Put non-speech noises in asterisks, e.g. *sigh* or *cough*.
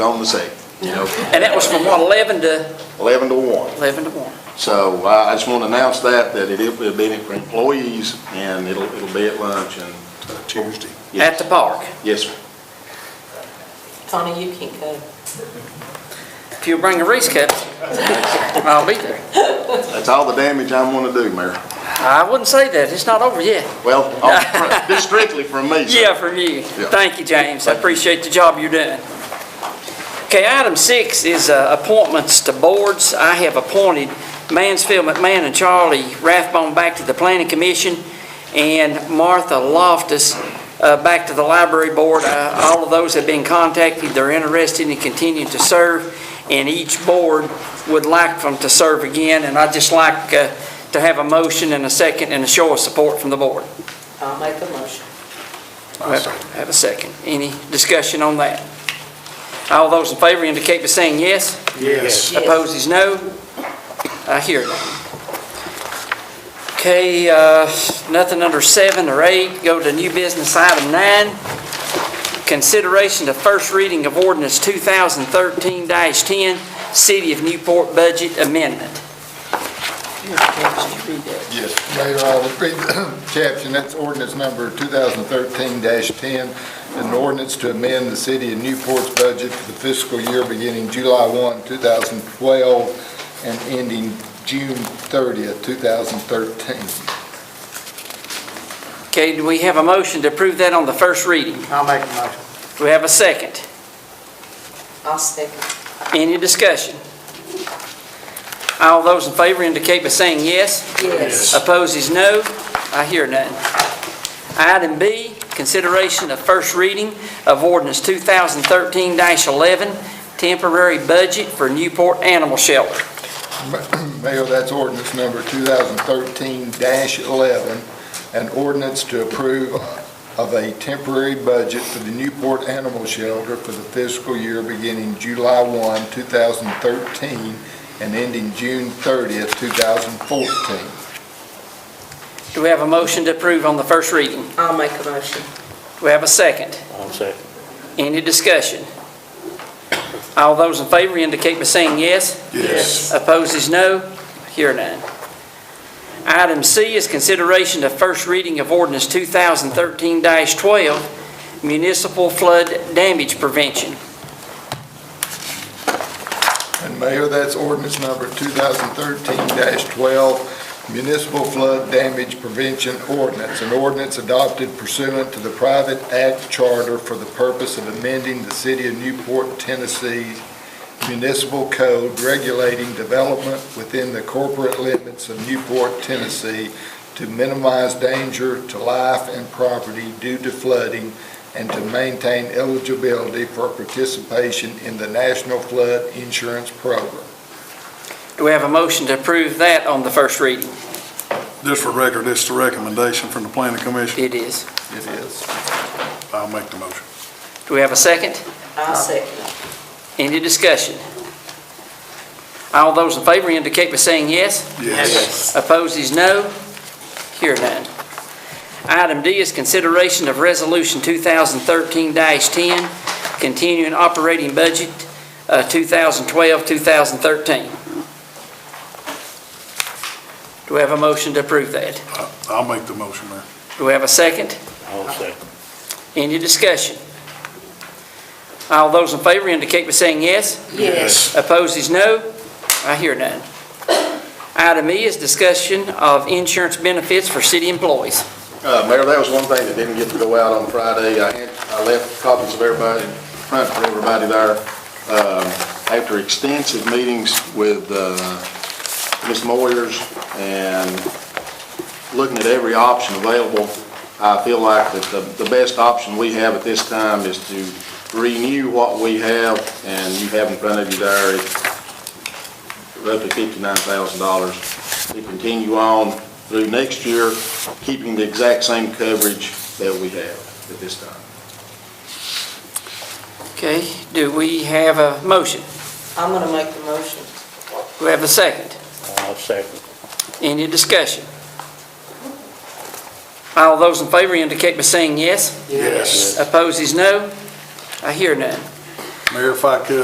on the second, you know, And that was from what, 11 to, 11 to 1. 11 to 1? So I I just want to announce that, that it'll it'll be for employees, and it'll it'll be at lunch, and, Tuesday. At the park. yes, sir. Donna, you can't go. If you bring a Reese cup, *laughs* I'll be there. that's all the damage I'm going to do, Mayor. I wouldn't say that, it's not over yet. Well, all- this strictly from me, sir. Yeah, from you. Yeah. Thank you, James. I appreciate the job you're doing. Okay, item six is uh, appointments to boards. I have appointed Mansfield McMahon and Charlie Rathbone back to the Planning Commission and Martha Loftus uh, back to the Library Board. Uh, All of those have been contacted. They're interested in continuing to serve, and each board would like them to serve again. And I'd just like uh, to have a motion and a second and a show of support from the board. I'll make the motion. I second. Have a second. Any discussion on that? All those in favor indicate by saying yes. Yes. Yes. Opposed is no. I hear that. Okay, uh, nothing under seven or eight. Go to new business item nine. Consideration to first reading of ordinance 2013-10, City of Newport Budget Amendment. Yes, Mayor, I'll repeat the *coughs* caption, that's ordinance number 2013-10, an ordinance to amend the city of Newport's budget for the fiscal year beginning July 1, 2012, and ending June 30th, 2013. Okay, do we have a motion to approve that on the first reading? I'll make a motion. Do we have a second? I'll second. Any discussion? All those in favor indicate by saying yes. Yes. Opposed is no. I hear none. Item B, consideration of first reading of ordinance 2013-11, temporary budget for Newport Animal Shelter. *coughs* Mayor, that's ordinance number 2013-11, an ordinance to approve of a temporary budget for the Newport Animal Shelter for the fiscal year beginning July 1, 2013, and ending June 30th, 2014. Do we have a motion to approve on the first reading? I'll make a motion. Do we have a second? I'll second. Any discussion? All those in favor indicate by saying yes. Yes. Opposed is no. Hear none. Item C is consideration of first reading of ordinance 2013-12, municipal flood damage prevention. And Mayor, that's ordinance number 2013-12, municipal flood damage prevention ordinance, an ordinance adopted pursuant to the Private Act Charter for the purpose of amending the City of Newport, Tennessee Municipal Code regulating development within the corporate limits of Newport, Tennessee to minimize danger to life and property due to flooding and to maintain eligibility for participation in the National Flood Insurance Program. Do we have a motion to approve that on the first reading? Just for record, it's the recommendation from the planning commission. It is. It is. I'll make the motion. Do we have a second? I'll second. Any discussion? All those in favor indicate by saying yes. Yes. Opposed is no. Hear none. Item D is consideration of Resolution 2013-10, continuing operating budget uh, 2012-2013. Do we have a motion to approve that? I- I'll make the motion, Mayor. Do we have a second? I'll second. Any discussion? All those in favor indicate by saying yes. Yes. Opposed is no. I hear none. Item E is discussion of insurance benefits for city employees. Uh, Mayor, that was one thing that didn't get to go out on Friday. I had, I left copies of everybody, front for everybody there. Um, After extensive meetings with uh, Ms. Moyers and looking at every option available, I feel like that the, the best option we have at this time is to renew what we have, and you have in front of you there roughly fifty-nine thousand dollars. We continue on through next year, keeping the exact same coverage that we have at this time. Okay, do we have a motion? I'm gonna make the motion. Do we have a second? I'll second. Any discussion? All those in favor indicate by saying yes. Yes. Opposed is no. I hear none. Mayor, if I could,